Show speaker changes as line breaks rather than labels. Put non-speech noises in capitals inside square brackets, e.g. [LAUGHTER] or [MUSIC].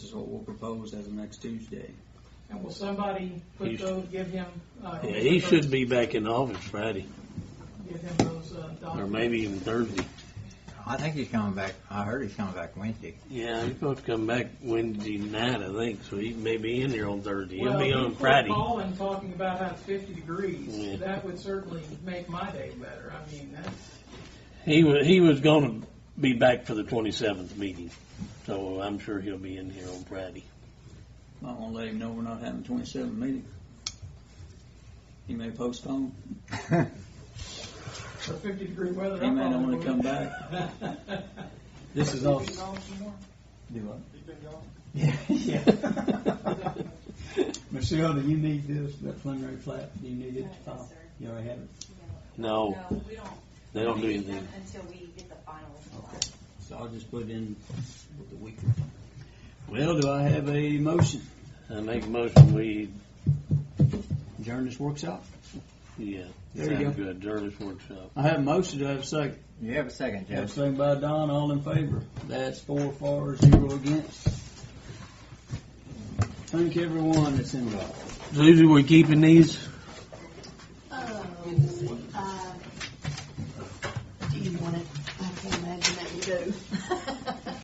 is what we'll propose as of next Tuesday.
And will somebody put
He's-
those, give him, uh?
Yeah, he should be back in the office Friday,
Give him those, uh,
or
documents.
maybe even Thursday.
I think he's coming back, I heard he's coming back Wednesday.
Yeah, he's supposed to come back Wednesday night, I think, so he may be in here on Thursday. He'll
Well,
be on
people
Friday.
Calling, talking about how it's fifty
Yeah.
degrees, that would certainly make my day better, I mean, that's,
He was, he was gonna be back for the twenty-seventh meeting, so I'm sure he'll be in here on Friday.
Might want to let him know we're not having twenty-seven meeting. He may postpone.
for fifty degree weather.
He
I
may not
probably
want to
would.
come
[LAUGHS]
back.
This is all. Do
[LAUGHS]
what? Yeah, yeah.
[LAUGHS] Michelle, do you need this, the preliminary plat, do you need it to
No,
file?
sir.
You already have it?
No,
No, we don't.
Oh. they don't do
we them
anything.
Until we get the final.
So I'll just put in with the week. Well, do I have a motion?
I make a motion, we,
Adjourn this workshop.
yeah.
There you
sounds
go.
Good, Jarvis Workshop.
I have a motion. Do I have a second?
You have a second,
Have a
Judge.
second by Don, all in favor? That's four for, zero against. Thank everyone that's involved.
Susie, we keeping these?
Um, Oh, uh, do [LAUGHS] you want it? I can't imagine that you do.